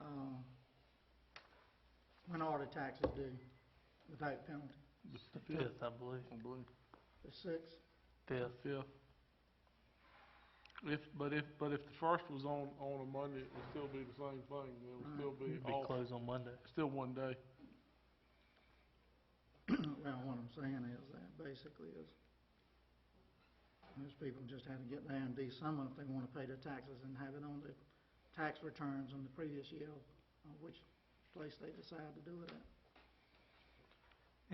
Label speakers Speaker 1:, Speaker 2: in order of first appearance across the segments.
Speaker 1: um, property taxes due without penalty.
Speaker 2: The fifth, I believe,
Speaker 3: I believe.
Speaker 1: The sixth,
Speaker 2: fifth.
Speaker 3: Fifth. If, but if, but if the first was on, on a Monday, it would still be the same thing, it would still be
Speaker 2: It'd Be
Speaker 3: off,
Speaker 2: closed on Monday.
Speaker 3: still one day.
Speaker 1: well, what I'm saying is that basically is, those people just have to get there and do something if they wanna pay their taxes and have it on their tax returns on the previous year, uh, which place they decide to do it at.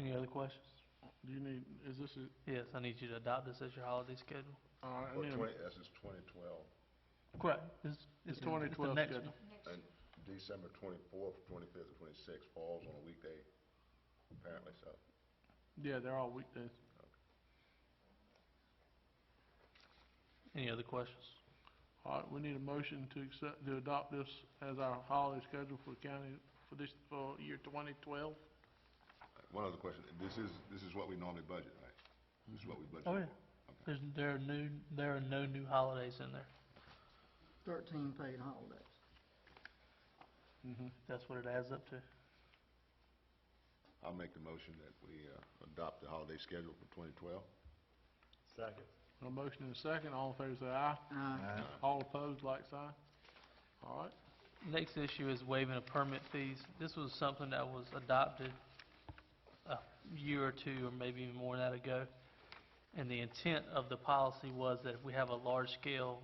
Speaker 2: Any other questions?
Speaker 3: Do you need, is this, a- uh,
Speaker 2: Yes, I need you to adopt this as your holiday schedule.
Speaker 3: all right, I
Speaker 4: Or
Speaker 3: need a-
Speaker 4: twenty, that's just twenty twelve,
Speaker 2: Correct. It's,
Speaker 3: It's
Speaker 2: it's the it's
Speaker 3: 2012
Speaker 2: the next
Speaker 3: schedule.
Speaker 2: one.
Speaker 4: and December twenty-fourth, twenty-fifth, and twenty-sixth falls on a weekday, apparently, so.
Speaker 3: yeah, they're all weekdays.
Speaker 2: Any other questions?
Speaker 3: All right, we need a motion to accept, to adopt this as our holiday schedule for the county for this, for year twenty twelve.
Speaker 4: One other question, this is, this is what we normally budget, right? This is what we budget.
Speaker 2: Oh, yeah.
Speaker 4: Okay.
Speaker 2: There's, there are new, there are no new holidays in there.
Speaker 1: Thirteen paid holidays.
Speaker 3: Mm-hmm.
Speaker 2: That's what it adds up to.
Speaker 4: I'll make the motion that we, uh, adopt the holiday schedule for twenty twelve.
Speaker 5: Second.
Speaker 3: A motion and a second, all in favor say aye.
Speaker 1: Uh,
Speaker 3: All opposed, like sign. All right,
Speaker 2: Next issue is waiving of permit fees. This was something that was adopted a year or two, or maybe even more than that ago. And the intent of the policy was that if we have a large-scale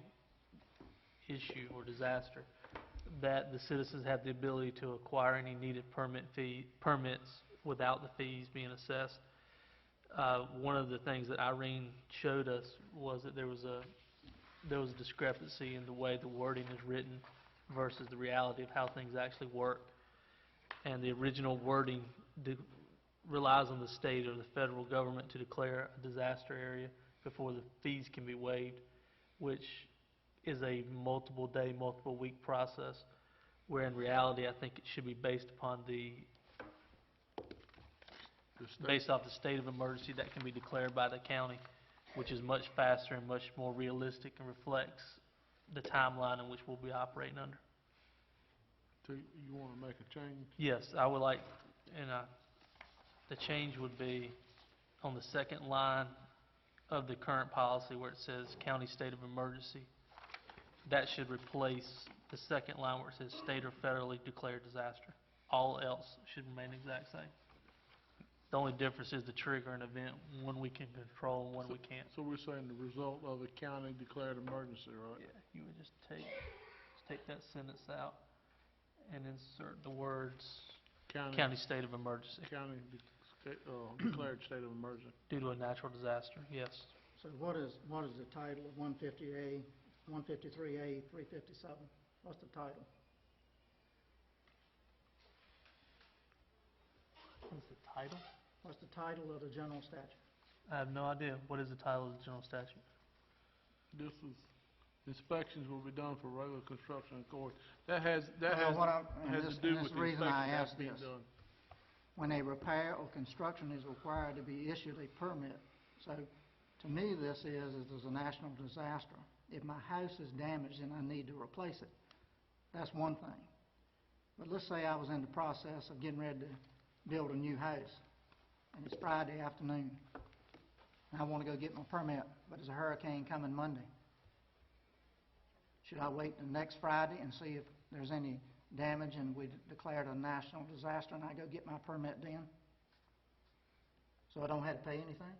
Speaker 2: issue or disaster, that the citizens have the ability to acquire any needed permit fee, permits without the fees being assessed. Uh, one of the things that Irene showed us was that there was a, there was discrepancy in the way the wording is written versus the reality of how things actually work. And the original wording de- relies on the state or the federal government to declare a disaster area before the fees can be waived, which is a multiple day, multiple week process, where in reality, I think it should be based upon the,
Speaker 3: the state,
Speaker 2: based off the state of emergency that can be declared by the county, which is much faster and much more realistic and reflects the timeline in which we'll be operating under.
Speaker 3: do you wanna make a change?
Speaker 2: Yes, I would like, and I, the change would be on the second line of the current policy where it says county state of emergency. That should replace the second line where it says state or federally declared disaster. All else should remain the exact same. The only difference is the trigger and event, one we can control and one we can't.
Speaker 3: So we're saying the result of a county declared emergency, right?
Speaker 2: Yeah, you would just take, just take that sentence out and insert the words county state of emergency.
Speaker 3: County, de- sta- uh, declared state of emergency.
Speaker 2: Due to a natural disaster, yes.
Speaker 1: so what is, what is the title of one fifty A, one fifty-three A, three fifty-seven? What's the title?
Speaker 2: What's the title?
Speaker 1: What's the title of the general statute?
Speaker 2: I have no idea. What is the title of the general statute?
Speaker 3: This is, inspections will be done for regular construction according, that has, that
Speaker 1: Well,
Speaker 3: has,
Speaker 1: what I'm- and
Speaker 3: has
Speaker 1: this-
Speaker 3: to do
Speaker 1: and
Speaker 3: with
Speaker 1: this
Speaker 3: the
Speaker 1: reason I
Speaker 3: inspection that's
Speaker 1: asked
Speaker 3: being
Speaker 1: this.
Speaker 3: done.
Speaker 1: when a repair or construction is required to be issued a permit. So to me, this is, is there's a national disaster. If my house is damaged and I need to replace it, that's one thing. But let's say I was in the process of getting ready to build a new house, and it's Friday afternoon, and I want to go get my permit, but there's a hurricane coming Monday. Should I wait till next Friday and see if there's any damage and we declared a national disaster and I go get my permit then? So I don't have to pay anything?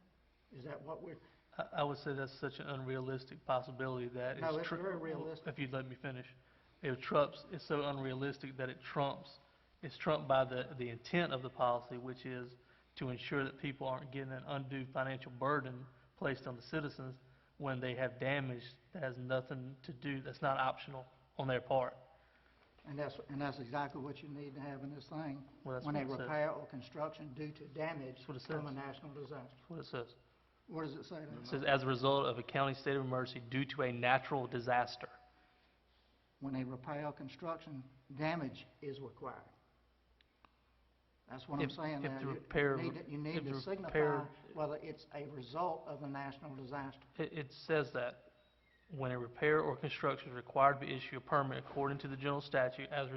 Speaker 1: Is that what we're,
Speaker 2: I, I would say that's such an unrealistic possibility that
Speaker 1: No,
Speaker 2: it's
Speaker 1: it's
Speaker 2: tru-
Speaker 1: very realistic.
Speaker 2: If you'd let me finish. It trumps, it's so unrealistic that it trumps, it's trumped by the, the intent of the policy, which is to ensure that people aren't getting an undue financial burden placed on the citizens when they have damage that has nothing to do, that's not optional on their part.
Speaker 1: and that's, and that's exactly what you need to have in this thing.
Speaker 2: Well, that's
Speaker 1: When
Speaker 2: what
Speaker 1: a
Speaker 2: it says.
Speaker 1: repair or construction due to damage
Speaker 2: That's what it
Speaker 1: from a
Speaker 2: says.
Speaker 1: national disaster.
Speaker 2: That's what it says.
Speaker 1: What does it say
Speaker 2: It
Speaker 1: there?
Speaker 2: says, as a result of a county state of emergency due to a natural disaster.
Speaker 1: When a repair or construction damage is required. That's what I'm
Speaker 2: If-
Speaker 1: saying
Speaker 2: if
Speaker 1: there.
Speaker 2: the
Speaker 1: You-
Speaker 2: repair-
Speaker 1: You need to- you need
Speaker 2: if the
Speaker 1: to signify
Speaker 2: repair-
Speaker 1: whether it's a result of a national disaster.
Speaker 2: It, it says that when a repair or construction is required to issue a permit according to the general statute as a